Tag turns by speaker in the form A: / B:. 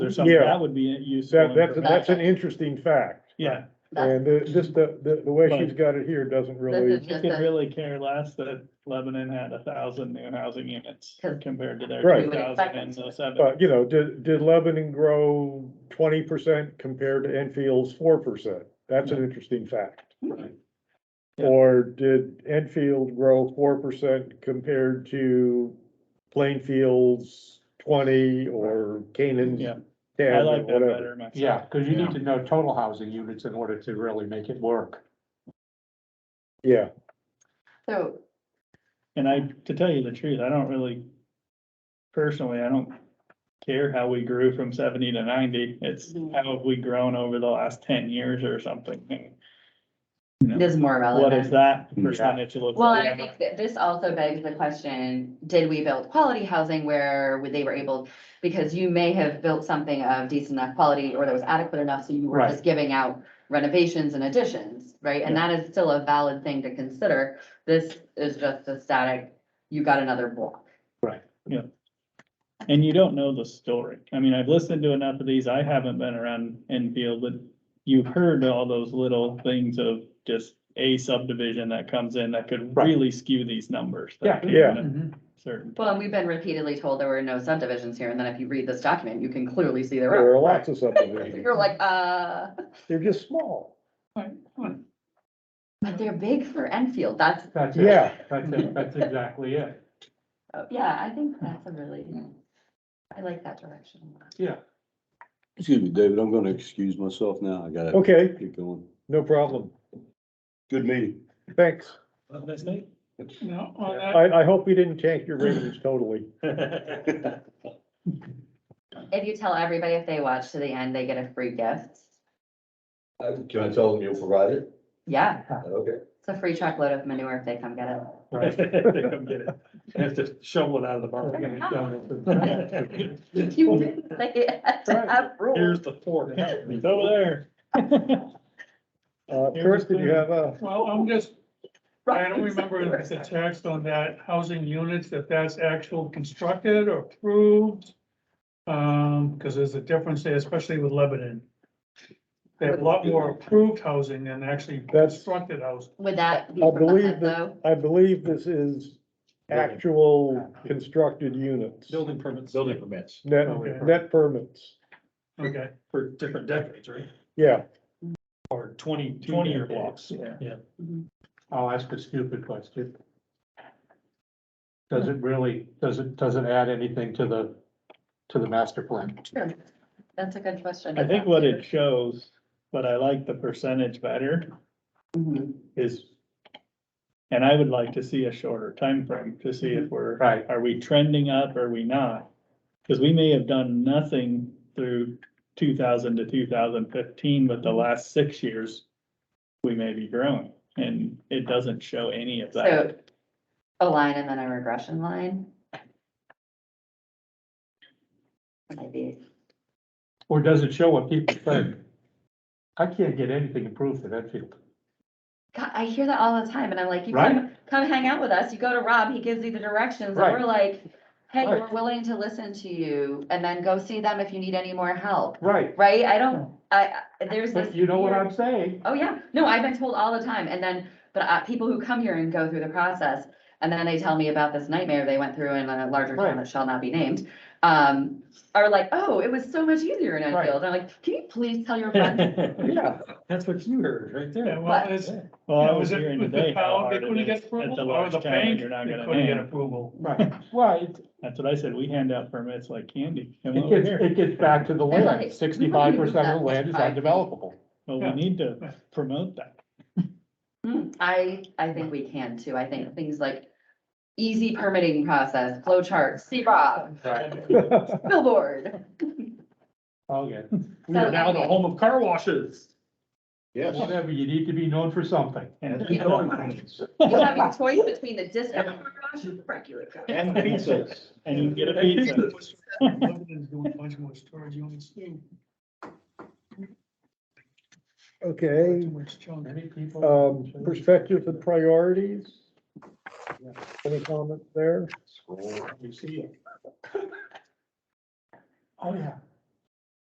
A: or something,
B: Yeah.
A: that would be useful.
B: That, that's,
A: information.
B: that's an interesting fact.
A: Yeah,
B: And the, just the, the, the way
A: But-
B: she's got it here doesn't really,
A: we could really care less that Lebanon had a thousand new housing units
C: 'Cause
A: compared to their
B: Right. Oh,
A: two thousand in the seven.
B: but you know, did, did Lebanon grow twenty percent compared to Enfield's four percent? That's an interesting fact.
A: Right. Yeah.
B: Or did Enfield grow four percent compared to Plainfield's twenty or Canaan's
A: Yeah,
B: ten
A: I
B: or
A: like that
B: whatever?
A: better myself.
D: Yeah, because you need to know total housing units in order to really make it work.
B: Yeah,
C: So,
A: And I, to tell you the truth, I don't really, personally, I don't care how we grew from seventy to ninety. It's
C: Mhm.
A: how have we grown over the last ten years or something?
C: this is more
A: What is
C: relevant.
A: that percentage look
C: Well, and I
A: like?
C: think that this also begs the question, did we build quality housing where would- they were able? Because you may have built something of decent enough quality or that was adequate enough, so you were
D: Right.
C: just giving out renovations and additions, right? And that is still a valid thing to consider. This is just a static, you got another block.
A: And you don't know the story. I mean, I've listened to enough of these. I haven't been around Enfield, but you've heard all those little things of just a subdivision that comes in that could
D: Right.
A: really skew these numbers. that
D: Yeah,
A: came
B: yeah.
A: in at Certain.
C: Well, and we've been repeatedly told there were no subdivisions here, and then if you read this document, you can clearly see there
B: there
C: are.
B: are lots of subdivisions.
C: You're like, uh.
B: They're just small.
C: But they're big for Enfield, that's,
D: That's it.
B: Yeah.
D: That's it, that's exactly it.
C: oh, yeah, I think that's a really, I like that direction. a lot.
D: Yeah.
E: Excuse me, David, I'm gonna excuse myself now. I gotta
B: Okay,
E: keep going.
B: no problem.
E: Good meeting.
B: Thanks.
A: No,
B: I, I hope we didn't tank your ratings totally.
C: If you tell everybody if they watch to the end, they get a free gift.
F: Uh, Can I tell them you'll provide it?
C: Yeah,
F: Okay.
C: it's a free truckload of manure if they come get it.
D: Right.
A: Have to shovel it out of the barn.
C: You didn't say it had to have rules.
A: the fork. It's over there.
B: Uh, Kurt, did you have a,
G: Well, I'm just, I don't remember if the
C: Right.
G: text on that housing units, if that's actual constructed or approved. Um, because there's a difference there, especially with Lebanon. They have a lot more approved housing than actually
B: That's-
G: constructed housing.
C: Would that be
B: I believe
C: permanent
B: that-
C: though?
B: I believe this is actual constructed units.
H: Building Oh, permits. Building permits.
B: Net, net permits,
G: Okay,
H: For different decades, right?
B: yeah.
H: Or twenty, twenty-year blocks.
A: Yeah.
C: Mhm.
D: I'll ask a stupid question. Does it really, does it, does it add anything to the, to the master plan?
C: Sure. That's a good question.
A: I think what it shows, but I like the percentage better,
C: Mhm.
A: is. And I would like to see a shorter time frame to see
G: Mm-hmm.
A: if we're,
D: Right.
A: are we trending up, or are we not? Cause we may have done nothing through two thousand to two thousand fifteen, but the last six years. We may be growing, and it doesn't show any of
C: So
A: that.
C: a line and then a regression line. Maybe.
D: Or does it show what people think? I can't get anything approved for Enfield.
C: God, I hear that all the time and I'm like, you come, come hang out with us. You go to Rob, he gives you the directions and
D: Right.
C: we're like, hey,
D: Right.
C: we're willing to listen to you and then go see them if you need any more help,
D: Right,
C: right? I don't, I, I- there's this.
D: but you know what
C: weird-
D: I'm saying?
C: Oh, yeah. No, I've been told all the time. And then, but uh, people who come here and go through the process and then they tell me about this nightmare they went through in a larger town
D: Right.
C: that shall not be named. Um, are like, oh, it was so much easier in
D: Right.
C: Enfield. And I'm like, can you please tell your friends?
D: Yeah.
H: That's what you heard right
G: yeah,
H: there.
G: well, it's.
A: Well, I
G: Yeah,
A: was
G: it-
A: hearing
G: was the
A: today how
G: town,
A: hard
G: They
A: it
G: couldn't
A: is
G: get
A: at the
G: approval, or
A: large
G: the
A: town,
G: bank,
A: you're not
G: they
A: gonna
G: couldn't get
A: name.
G: approval.
D: Right, well, it,
A: That's what I said, we hand out permits like candy. Come
D: it
A: over
D: gets,
A: here.
D: it gets back to the
C: like,
D: land, sixty-five percent of the land is undevelopable.
A: Well, we
G: Yeah.
A: need to promote that.
C: Hmm, I, I think we can too. I think things like easy permitting process, flow charts, see Rob,
D: Right.
C: billboard.
D: Okay,
H: We are now the home of car washes.
E: Yes.
D: whatever, you need to be known for something.
A: And-
C: You have your choice between the discount garage and regular garage.
H: And pizzas.
A: And you can get a
G: That
A: pizza.
G: was- Lebanon's doing much more storage units too,
B: Okay,
G: too much junk.
D: Many people.
B: um, perspectives and priorities? Any comments there?
D: We see it. Oh, yeah,